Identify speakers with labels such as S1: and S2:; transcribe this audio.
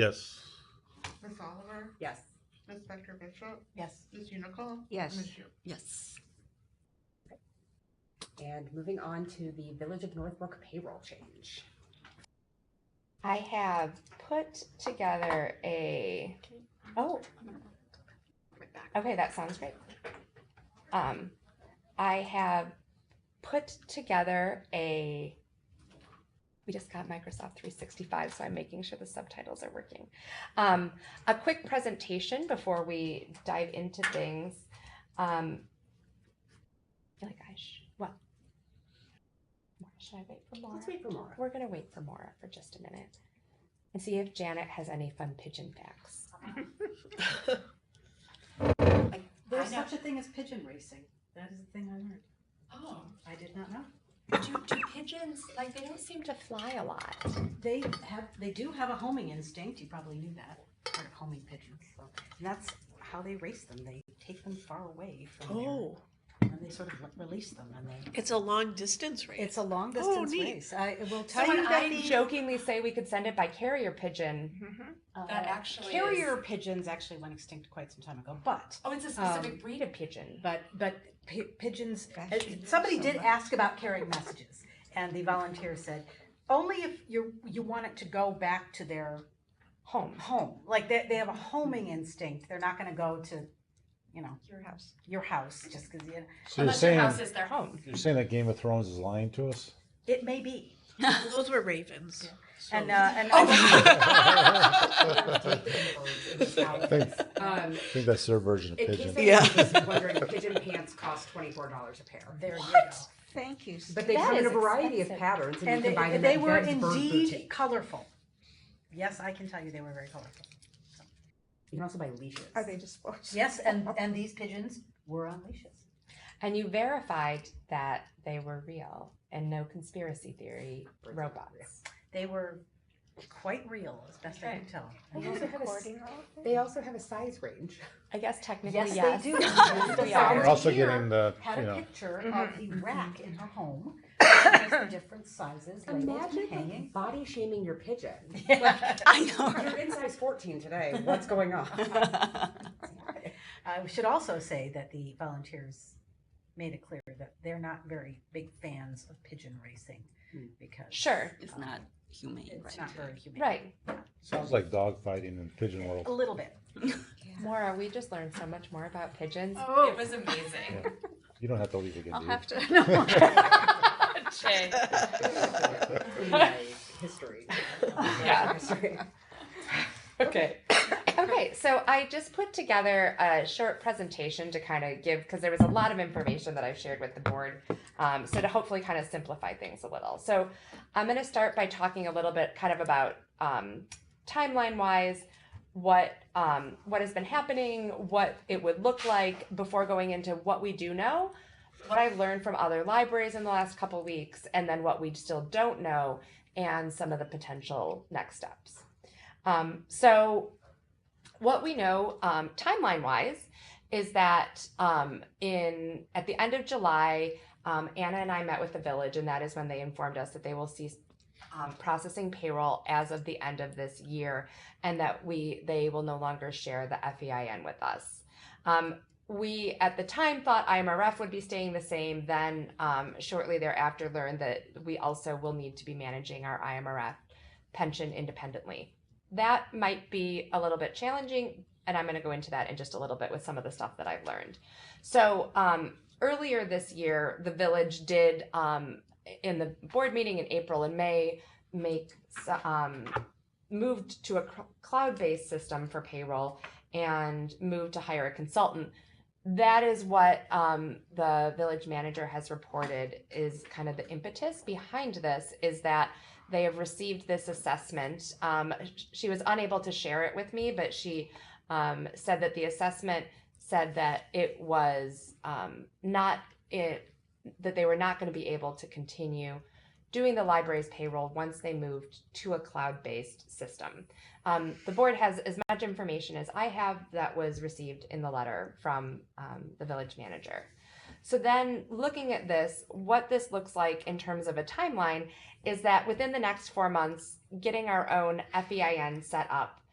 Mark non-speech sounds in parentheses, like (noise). S1: Yes.
S2: Ms. Oliver,
S3: Yes.
S2: Ms. Becker Bishop,
S3: Yes.
S2: Ms. Unical.
S3: Um,
S4: Yes.
S2: Ms. Yu.
S4: Yes.
S3: And moving on to the Village of Northbrook payroll change.
S5: I have put together a, oh, okay, that sounds great. Um, I have put together a, we just got Microsoft 365, so I'm making sure the subtitles are working. Um, a quick presentation before we dive into things. Um, I feel like I should, well, Maura, should I wait for Laura?
S3: Let's wait for
S5: (laughs)
S3: Laura.
S5: We're gonna wait for Maura for just a minute and see if Janet has any fun pigeon facts.
S6: There's
S7: I know.
S6: such a thing as pigeon racing. That is the thing I learned.
S7: Oh,
S6: I did not know.
S7: do, do pigeons,
S5: Like they don't seem to fly a lot.
S6: They have, they do have a homing instinct. You probably knew that. Part of homing pigeons. So and that's how they race them. They take them far away from
S4: Oh,
S6: there, and they sort of let- release them, and they.
S4: it's a long distance race.
S6: (laughs) It's a long distance
S4: Oh, neat.
S6: race. I will
S5: So
S6: tell
S5: when
S6: you that
S5: I
S6: the
S5: jokingly say we could send it by carrier pigeon,
S2: Mm-hmm.
S6: uh,
S7: that actually
S6: carrier
S7: is-
S6: pigeons actually went extinct quite some time ago, but
S7: oh, it's a specific
S6: Um,
S7: breed of pigeon.
S6: but but pi pigeons.
S4: Gosh,
S6: uh,
S4: you know
S6: somebody
S4: so
S6: did
S4: much.
S6: ask about carrying messages, and the volunteer said, only if you you want it to go back to their
S5: Home.
S6: home. Like they, they have a homing instinct. They're not going to go to, you know,
S4: your house.
S6: your house just because you.
S1: So you're
S7: Unless your
S1: saying
S7: house is their home.
S1: you're saying that Game of Thrones is lying to us?
S6: It may be.
S4: Those were ravens.
S6: And uh, and
S1: I think,
S3: Um,
S1: I think that's their version of
S3: in case
S1: pigeon.
S3: anyone was wondering, pigeon pants cost twenty-four dollars a pair.
S6: (laughs) there you go.
S4: Thank you.
S3: But they
S5: That
S3: come in a
S5: is
S3: variety
S5: expensive.
S3: of patterns, and,
S6: And
S3: you can buy
S6: they,
S3: them
S6: they
S3: at
S6: were
S3: Bed's Bird
S6: indeed
S3: Boutique.
S6: colorful. Yes, I can tell you they were very colorful.
S3: You can also buy leashes.
S4: Are they just?
S6: Yes, and and these pigeons were on leashes.
S5: And you verified that they were real and no conspiracy theory robots.
S6: They were quite real, as best I can tell.
S3: They
S6: (laughs)
S3: also have a s- They also have a size range.
S5: I guess technically, yes.
S6: Yes,
S5: (laughs)
S6: they do.
S5: Yes, we
S6: Yeah.
S1: We're
S5: are.
S1: also
S6: Here
S1: getting the,
S6: Had
S1: you
S6: a
S1: know,
S6: picture
S5: Mhm.
S6: of
S3: Mm-hmm.
S6: the rack in her home. which has the different sizes, labeled
S3: Imagine like, (laughs)
S6: and hanging.
S3: body shaming your pigeon.
S6: (laughs)
S4: I
S3: You're in size fourteen today. What's going on?
S4: know.
S6: I should also say that the volunteers made it clear that they're not very big fans of pigeon racing
S3: Hmm.
S6: because. um,
S5: Sure.
S4: It's not humane,
S6: It's not very humane.
S5: Right.
S1: sounds like dogfighting in pigeon
S6: A
S1: world.
S6: little bit.
S5: Maura, we just learned so much more about pigeons.
S7: Oh. It was amazing.
S1: You don't have to leave again,
S4: I'll
S1: do you?
S4: have to. (laughs)
S1: (laughs)
S5: (laughs)
S7: Oh. (laughs) Jay.
S3: In my history.
S7: Yeah.
S3: History.
S5: Okay. okay, so I just put together a short presentation to kind of give, because there was a lot of information that I've shared with the board. Um, so to hopefully kind of simplify things a little. So I'm going to start by talking a little bit kind of about um, timeline wise what um, what has been happening, what it would look like before going into what we do know, what I've learned from other libraries in the last couple weeks, and then what we still don't know, and some of the potential next steps. Um, so, what we know um, timeline wise is that um, in at the end of July, um, Anna and I met with the village, and that is when they informed us that they will cease um, processing payroll as of the end of this year, and that we they will no longer share the FEIN with us. Um, we at the time thought IMRF would be staying the same. Then um, shortly thereafter, learned that we also will need to be managing our IMRF pension independently that might be a little bit challenging and i'm going to go into that in just a little bit with some of the stuff that i've learned so um, earlier this year the village did um, in the board meeting in april and may make s- um, moved to a cr- cloud-based system for payroll and moved to hire a consultant that is what um, the village manager has reported is kind of the impetus behind this is that they have received this assessment. Um, sh- she was unable to share it with me, but she um, said that the assessment said that it was um, not it that they were not going to be able to continue doing the library's payroll once they moved to a cloud-based system. Um, the board has as much information as I have that was received in the letter from um, the village manager. So then, looking at this, what this looks like in terms of a timeline is that within the next four months, getting our own FEIN E set up